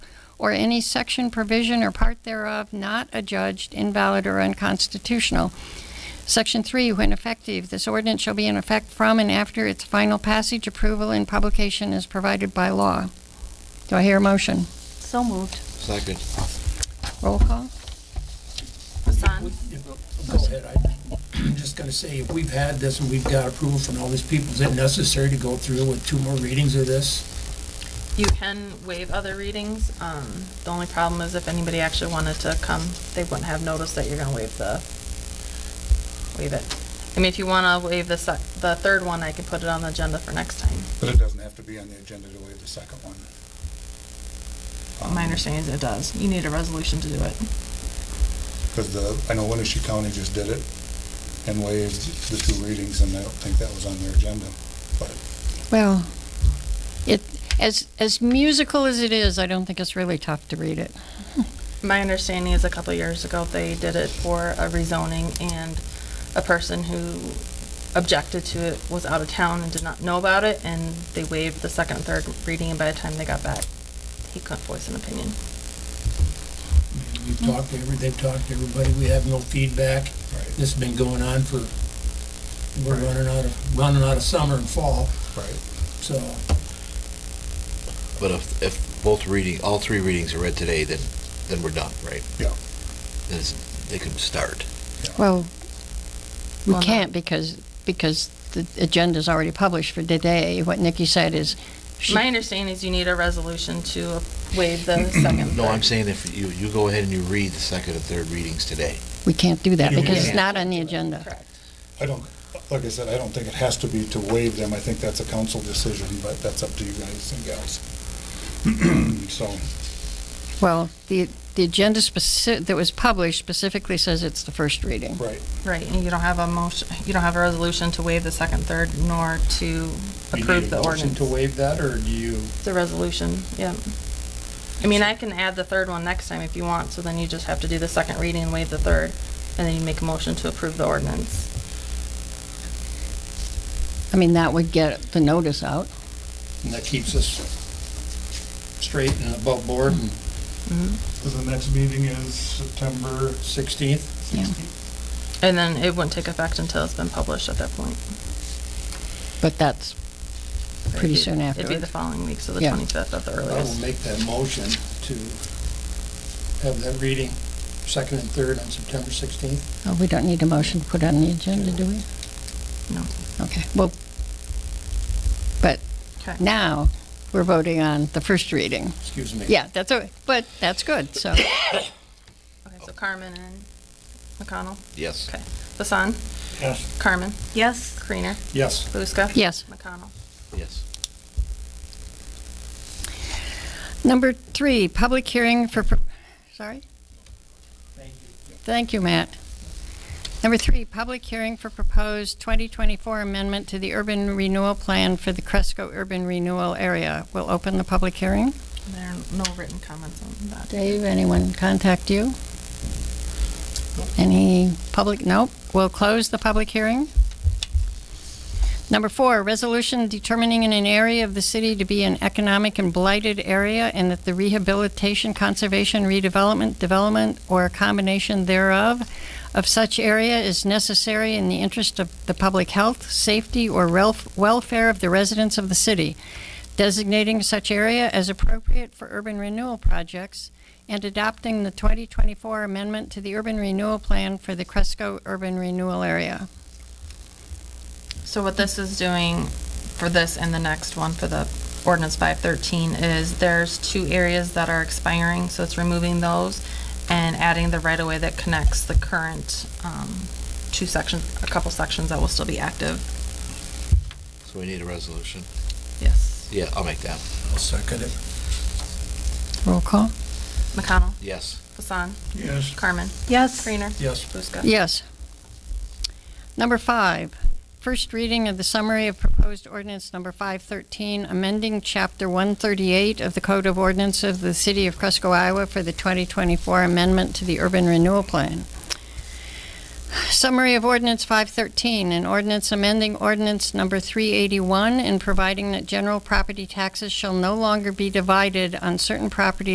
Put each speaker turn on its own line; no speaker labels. or any section, provision, or part thereof not adjudged invalid or unconstitutional. Section 3, when effective, this ordinance shall be in effect from and after its final passage, approval, and publication as provided by law. Do I hear a motion?
So moved.
Second.
Roll call?
Hassan?
Go ahead, I- I'm just gonna say, if we've had this and we've got approval from all these people, is it necessary to go through with two more readings of this?
You can waive other readings. Um, the only problem is if anybody actually wanted to come, they wouldn't have noticed that you're gonna waive the, waive it. I mean, if you wanna waive the sec, the third one, I can put it on the agenda for next time.
But it doesn't have to be on the agenda to waive the second one.
My understanding is it does. You need a resolution to do it.
Because the, I know Winnebago County just did it and waived the two readings, and I don't think that was on their agenda. But
Well, it, as, as musical as it is, I don't think it's really tough to read it.
My understanding is a couple years ago, they did it for a rezoning and a person who objected to it was out of town and did not know about it, and they waived the second and third reading, and by the time they got back, he couldn't voice an opinion.
We've talked to every, they've talked to everybody, we have no feedback.
Right.
This has been going on for, we're running out of, running out of summer and fall,
Right.
so
But if, if both reading, all three readings are read today, then, then we're done, right?
Yeah.
Then it's- they can start.
Well, we
Well, no.
can't because, because the agenda's already published for today. What Nikki said is, she-
My understanding is you need a resolution to waive the second.
No, I'm
third.
saying if you, you go ahead and you read the second and third readings today.
we can't do that
You
because it's
can't.
not on the agenda.
Correct.
I don't, like I said, I don't think it has to be to waive them. I think that's a council decision, but that's up to you guys and gals. So,
Well, the, the agenda speci, that was published specifically says it's the first reading.
right.
Right, and you don't have a motion, you don't have a resolution to waive the second, third, nor to
you need
approve
a
the
motion
ordinance.
to waive that, or do you?
The resolution, yeah. I mean, I can add the third one next time if you want, so then you just have to do the second reading and waive the third, and then you make a motion to approve the ordinance.
I mean, that would get the notice out.
And that keeps us straight and above board, and
Mm-hmm.
So the next meeting is September
16th,
And then it wouldn't take effect until it's been published at that point.
But that's pretty soon
It'd be the
afterwards.
following week, so the
Yeah.
twenty-fifth at the
I will
earliest.
make that motion to have that reading, second and third on September 16th.
Oh, we don't need a motion to put on the agenda, do we?
Oh,
No.
Okay, well, but
Okay.
now, we're voting on the first reading.
Excuse me.
Yeah, that's, all. but that's good, so,
Okay, so Carmen and McConnell,
Yes.
okay. Hassan,
Yes.
Carmen,
Yes.
Kreener,
Yes.
Buska.
yes.
McConnell.
Yes.
Number three, public hearing for, pro- sorry? Thank you, Matt. Number three, public hearing for proposed 2024 amendment to the urban renewal plan for the Cresco Urban Renewal Area. We'll open the public hearing.
There are no written comments on that.
Dave, anyone contact you? Any public, nope. We'll close the public hearing. Number four, resolution determining in an area of the city to be an economic and blighted area and that the rehabilitation, conservation, redevelopment, development, or a combination thereof of such area is necessary in the interest of the public health, safety, or relf- welfare of the residents of the city, designating such area as appropriate for urban renewal projects, and adopting the 2024 amendment to the urban renewal plan for the Cresco Urban Renewal Area.
So what this is doing for this and the next one for the ordinance five thirteen is there's two areas that are expiring, so it's removing those and adding the right of way that connects the current, um, two sections, a couple sections that will still be active.
So we need a resolution.
Yes.
Yeah, I'll make that.
I'll second it.
Roll call?
McConnell,
Yes.
Hassan,
Yes.
Carmen,
Yes.
Kreener,
Yes.
Buska.
Yes. Number five, first reading of the summary of proposed ordinance number 513, amending Chapter 138 of the Code of Ordinances of the City of Cresco, Iowa for the 2024 amendment to the Urban Renewal Plan. Summary of Ordinance 513, an ordinance amending Ordinance Number 381 and providing that general property taxes shall no longer be divided on certain property